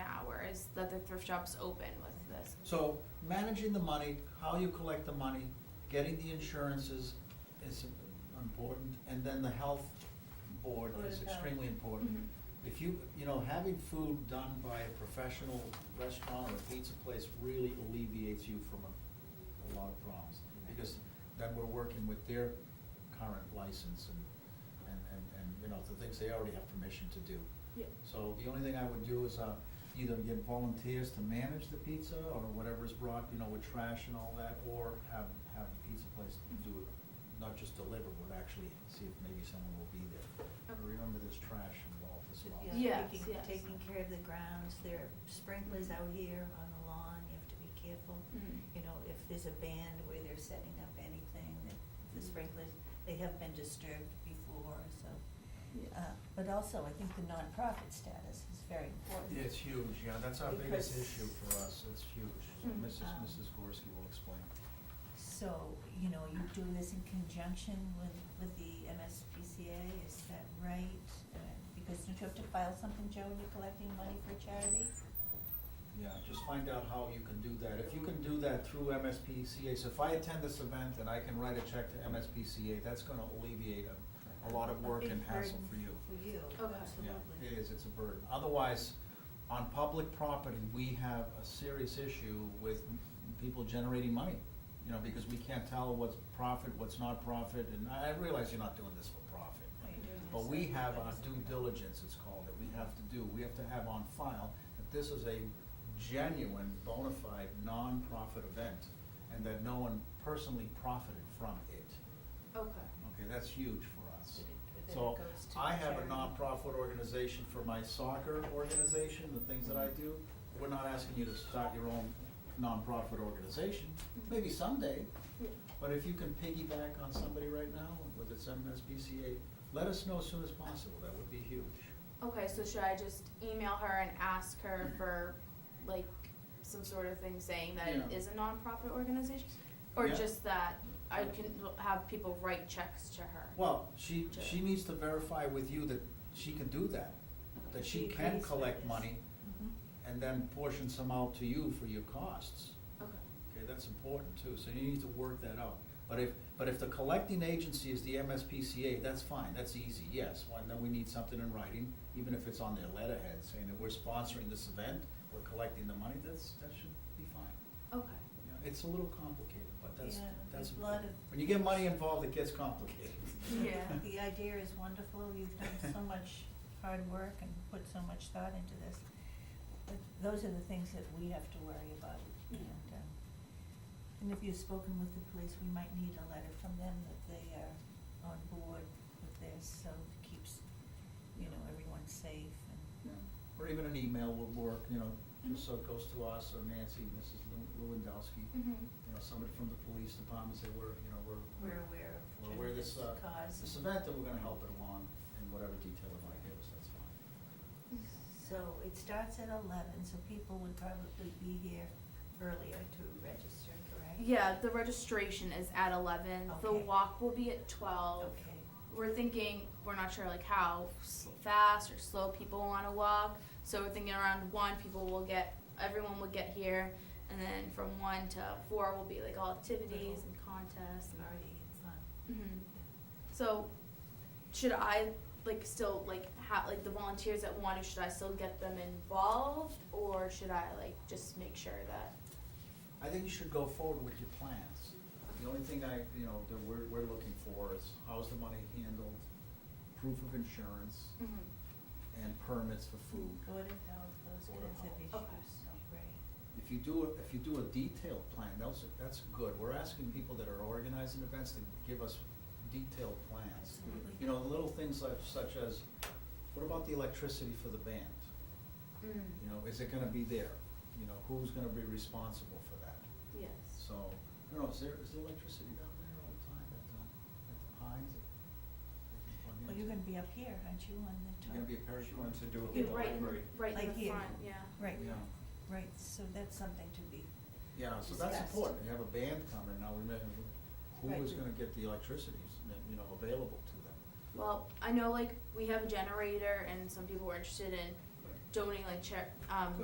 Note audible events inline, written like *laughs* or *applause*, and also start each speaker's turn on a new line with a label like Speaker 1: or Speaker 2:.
Speaker 1: that the thrift shop's open with this.
Speaker 2: So managing the money, how you collect the money, getting the insurances is important, and then the health board
Speaker 3: Board
Speaker 2: is
Speaker 3: of Health.
Speaker 2: extremely important.
Speaker 1: Mhm.
Speaker 2: If you, you know, having food done by a professional restaurant or a pizza place really alleviates you from a, a lot of problems. Because then we're working with their current license and, and, and, and, you know, the things they already have permission to do.
Speaker 3: Yeah.
Speaker 2: So the only thing I would do is, uh, either get volunteers to manage the pizza or whatever's brought, you know, with trash and all that, or have, have the pizza place do it. Not just deliver, but actually see if maybe someone will be there. But
Speaker 1: Okay.
Speaker 2: Remember, there's trash involved as well.
Speaker 1: Yes,
Speaker 3: Yeah, taking-
Speaker 1: yes.
Speaker 3: Taking care of the grounds, there are sprinklers out here on the lawn, you have to be careful.
Speaker 1: Mhm.
Speaker 3: You know, if there's a band where they're setting up anything, that the
Speaker 1: Mm-hmm.
Speaker 3: sprinklers, they have been disturbed before, so.
Speaker 1: Yeah.
Speaker 3: Uh, But also, I think the nonprofit status is very important.
Speaker 2: It's huge, yeah, that's our biggest
Speaker 3: Because-
Speaker 2: issue for us, it's huge.
Speaker 1: Mm.
Speaker 2: Mrs.
Speaker 3: Um,
Speaker 2: Mrs. Gorski will explain.
Speaker 3: So, you know, you do this in conjunction with, with the MSPCA, is that right? Uh, Because don't you have to file something, Joe, when you're collecting money for charity?
Speaker 2: Yeah, just find out how you can do that. If you can do that through MSPCA, so if I attend this event and I can write a check to MSPCA, that's gonna alleviate a, a lot of
Speaker 3: A
Speaker 2: work
Speaker 3: big
Speaker 2: and hassle
Speaker 3: burden
Speaker 2: for you.
Speaker 3: For you,
Speaker 1: Okay.
Speaker 2: Yeah,
Speaker 3: absolutely.
Speaker 2: it is, it's a burden. Otherwise, on public property, we have a serious issue with m- people generating money. You know, because we can't tell what's profit, what's not profit, and I I realize you're not doing this for profit.
Speaker 3: Right.
Speaker 2: But we have our due diligence, it's called, that we have to do, we have to have on file that this is a genuine, bona fide, nonprofit event, and that no one personally profited from it.
Speaker 1: Okay.
Speaker 2: Okay, that's huge for us.
Speaker 3: But it- but
Speaker 2: So,
Speaker 3: then it goes to
Speaker 2: I have a
Speaker 3: charity.
Speaker 2: nonprofit organization for my soccer organization, the things that I do. We're not asking you to start your own nonprofit organization,
Speaker 3: Mm-hmm.
Speaker 2: maybe someday, but if you can piggyback on somebody right now, whether it's MSBCA, let us know as soon as possible, that would be huge.
Speaker 1: Okay, so should I just email her and ask her for like some sort of thing saying that it
Speaker 2: Yeah.
Speaker 1: is a nonprofit organization? Or
Speaker 2: Yeah.
Speaker 1: just that I can have people write checks to her?
Speaker 2: Well, she, she needs to verify with you that she can do that, that she
Speaker 3: She
Speaker 2: can
Speaker 3: agrees with
Speaker 2: collect
Speaker 3: this.
Speaker 2: money
Speaker 3: Mhm.
Speaker 2: and then portion some out to you for your costs.
Speaker 1: Okay.
Speaker 2: Okay, that's important too, so you need to work that out. But if, but if the collecting agency is the MSPCA, that's fine, that's easy, yes. Well, then we need something in writing, even if it's on their letterhead, saying that we're sponsoring this event, we're collecting the money, that's, that should be fine.
Speaker 1: Okay.
Speaker 2: Yeah, It's a little complicated, but that's,
Speaker 3: Yeah,
Speaker 2: that's.
Speaker 3: there's a lot of-
Speaker 2: When you get money involved, it gets complicated.
Speaker 1: Yeah.
Speaker 3: *laughs* The idea is wonderful, you've done so much hard work and put so much thought into this. But those are the things that we have to worry about.
Speaker 1: Yeah.
Speaker 3: And, um, and if you've spoken with the police, we might need a letter from them that they are on board with this, so it keeps, you know, everyone safe and.
Speaker 2: Or even an email would work, you know,
Speaker 3: Mm-hmm.
Speaker 2: just so it goes to us or Nancy, Mrs. Lew- Lewandowski.
Speaker 1: Mhm.
Speaker 3: Mm-hmm.
Speaker 2: you know, somebody from the police department say, we're, you know, we're.
Speaker 3: We're aware of
Speaker 2: We're aware of this, uh,
Speaker 3: this cause.
Speaker 2: this event, and we're gonna help it along in whatever detail it might give us, that's fine.
Speaker 3: So it starts at eleven, so people would probably be here earlier to register, correct?
Speaker 1: Yeah, the registration is at eleven, the
Speaker 3: Okay.
Speaker 1: walk will be at twelve.
Speaker 3: Okay,
Speaker 1: We're thinking, we're not sure like how s- fast or slow people wanna walk, so we're thinking around one, people will get, everyone will get here. And then from one to four will be like all activities and contests and
Speaker 3: already fun.
Speaker 1: Mhm.
Speaker 3: Yeah.
Speaker 1: So, should I like still like have like the volunteers that want to? Should I still get them involved, or should I like just make sure that?
Speaker 2: I think you should go forward with your plans. The only thing I, you know, that we're, we're looking for is how's the money handled, proof of insurance,
Speaker 3: Mm-hmm.
Speaker 2: and permits for food.
Speaker 3: Board of Health, those
Speaker 2: Board of
Speaker 3: kinds of issues,
Speaker 1: Health.
Speaker 3: right.
Speaker 2: If you do, a- if you do a detailed plan, that's, that's good. We're asking people that are organizing events to give us detailed plans.
Speaker 3: Absolutely.
Speaker 2: You know, little things like, such as, what about the electricity for the band?
Speaker 1: Mm.
Speaker 2: You know, is it gonna be there? You know, who's gonna be responsible for that?
Speaker 1: Yes.
Speaker 2: So, I don't know, is there, is there electricity down there all the time at the, at the Pines?
Speaker 3: Well, you're gonna be up here, aren't you, on the top?
Speaker 2: You're gonna be a parachute.
Speaker 4: She wanted to do it
Speaker 1: Be
Speaker 4: with the
Speaker 1: right in,
Speaker 4: library.
Speaker 1: right
Speaker 3: Like
Speaker 1: in the
Speaker 3: here.
Speaker 1: front. Yeah.
Speaker 3: Right,
Speaker 2: Yeah.
Speaker 3: right, so that's something to be,
Speaker 2: Yeah, so that's
Speaker 3: Discussed.
Speaker 2: important, you have a band coming, now we may, who
Speaker 3: Right.
Speaker 2: is gonna get the electricity, you know, available to them?
Speaker 1: Well, I know like we have a generator, and some people were interested in donating like chair um,